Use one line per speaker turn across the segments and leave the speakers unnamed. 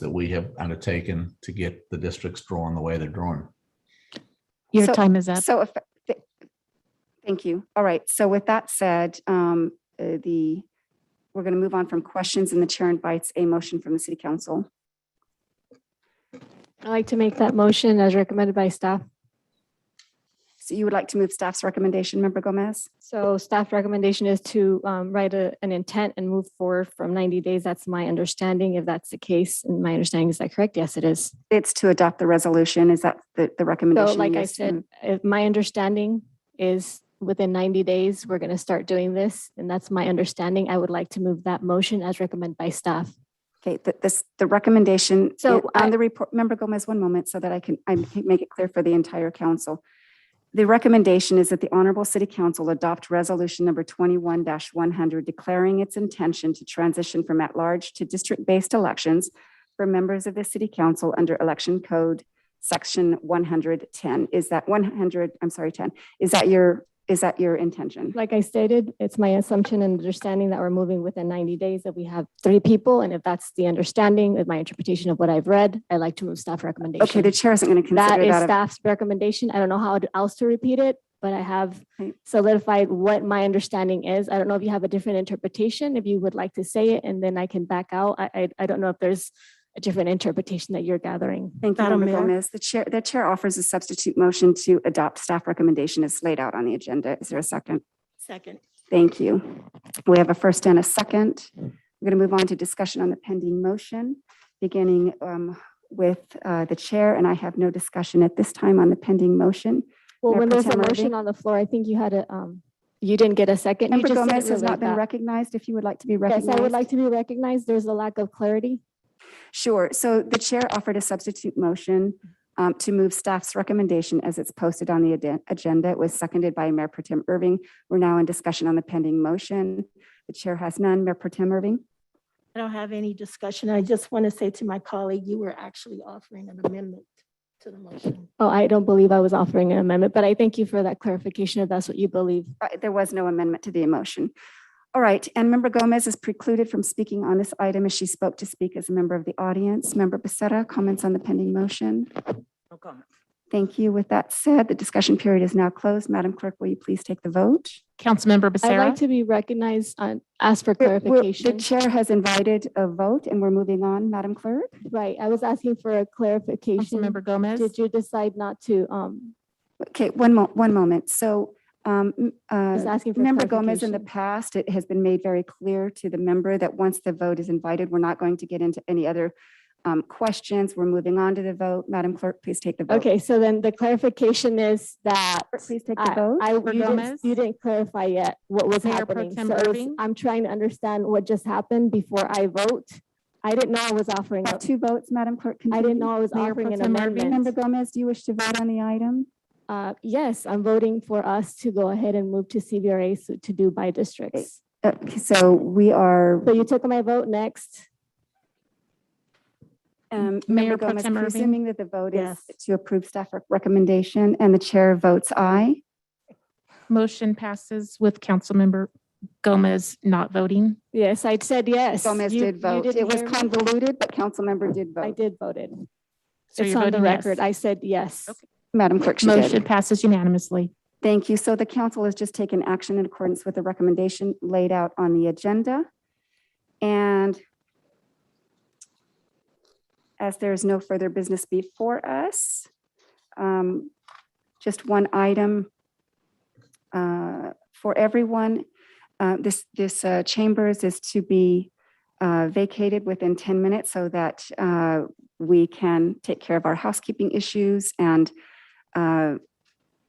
that we have undertaken to get the districts drawn the way they're drawn.
Your
So-
time is up.
So if, th- thank you. All right. So with that said, um, uh, the, we're going to move on from questions and the chair invites a motion from the city council.
I'd like to make that motion as recommended by staff.
So you would like to move staff's recommendation, member Gomez?
So staff recommendation is to um, write a- an intent and move forward from 90 days. That's my understanding. If that's the case, and my understanding, is that correct? Yes, it is.
It's to adopt the resolution. Is that the, the recommendation?
So like I
Yes,
said,
ma'am.
if my understanding is within 90 days, we're going to start doing this. And that's my understanding. I would like to move that motion as recommended by staff.
Okay, th- this, the recommendation i-
So I-
on the report, member Gomez, one moment so that I can, I can make it clear for the entire council. The recommendation is that the Honorable City Council adopt Resolution Number 21-100 declaring its intention to transition from at-large to district-based elections for members of the City Council under Election Code Section 110. Is that 100, I'm sorry, 10, is that your, is that your intention?
Like I stated, it's my assumption and understanding that we're moving within 90 days, that we have three people. And if that's the understanding with my interpretation of what I've read, I'd like to move staff recommendation.
Okay, the chair isn't going to
That
consider
is
that. a-
staff's recommendation. I don't know how else to repeat it, but I have
Okay.
solidified what my understanding is. I don't know if you have a different interpretation, if you would like to say it, and then I can back out. I, I, I don't know if there's a different interpretation that you're gathering.
Thank you,
Madam
Member
Mayor?
Gomez. The chair, the chair offers a substitute motion to adopt staff recommendation as laid out on the agenda. Is there a second?
Second.
Thank you. We have a first and a second. We're going to move on to discussion on the pending motion, beginning um, with uh, the chair, and I have no discussion at this time on the pending motion.
Well,
Mayor
when
Pro
there's a
Tem Irving?
motion on the floor, I think you had a, um, you didn't get a second. You
Member
just said it
Gomez has
really
not been
fast.
recognized. If you would like to be
Yes,
recognized.
I would like to be recognized. There's a lack of clarity.
Sure. So the chair offered a substitute motion um, to move staff's recommendation as it's posted on the aden- agenda. It was seconded by Mayor Pro Tem Irving. We're now in discussion on the pending motion. The chair has none. Mayor Pro Tem Irving?
I don't have any discussion. I just want to say to my colleague, you were actually offering an amendment to the motion.
Oh, I don't believe I was offering an amendment, but I thank you for that clarification if that's what you believe.
Uh, There was no amendment to the motion. All right. And Member Gomez is precluded from speaking on this item as she spoke to speak as a member of the audience. Member Becerra, comments on the pending motion?
No comment.
Thank you. With that said, the discussion period is now closed. Madam Clerk, will you please take the vote?
Councilmember
I'd like
Becerra,
to be recognized on, ask for
We're- we're-
clarification.
The chair has invited a vote and we're moving on, Madam Clerk.
Right, I was asking for a clarification.
Councilmember Gomez,
Did you decide not to, um,
Okay, one mo- one moment. So um, m-
I was
uh,
asking for
Member Gomez, in the
clarification.
past, it has been made very clear to the member that once the vote is invited, we're not going to get into any other um, questions. We're moving on to the vote. Madam Clerk, please take the vote.
Okay, so then the clarification is that.
Please take the
I,
vote.
I, you
Member
didn't,
Gomez?
you didn't clarify yet what was
Mayor Pro
happening.
Tem
So it's-
Irving?
I'm trying to understand what just happened before I vote. I didn't know I was offering,
We
a-
have Two votes, Madam Clerk.
I didn't
continue.
know I was
Mayor
offering
Pro
an
Tem Irving?
Member
amendment.
Gomez, do you wish to vote on the item?
Uh, yes, I'm voting for us to go ahead and move to CVRA so- to do by districts.
Uh, Okay, so we are,
So you took my vote next.
um, Member
Mayor Pro
Gomez,
Tem Irving?
presuming that the vote is
Yes.
to approve staff rec- recommendation and the chair votes aye.
motion passes with Councilmember Gomez not voting.
Yes, I said yes.
Gomez
You-
did
you
vote.
didn't
It was
hear me.
convoluted, but council member did
I
vote.
did voted.
So
It's
you're
on the
voting yes.
record. I said yes.
Okay.
Madam Clerk, she
Motion
did.
passes unanimously.
Thank you. So the council has just taken action in accordance with the recommendation laid out on the agenda. And as there is no further business before us, um, just one item uh, for everyone. Uh, This, this uh, chambers is to be uh, vacated within 10 minutes so that uh, we can take care of our housekeeping issues and uh,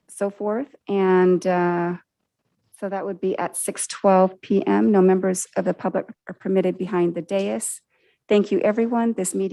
so forth. And uh, so that would be at 6:12 PM. No members of the public are permitted behind the dais. Thank you, everyone. This meeting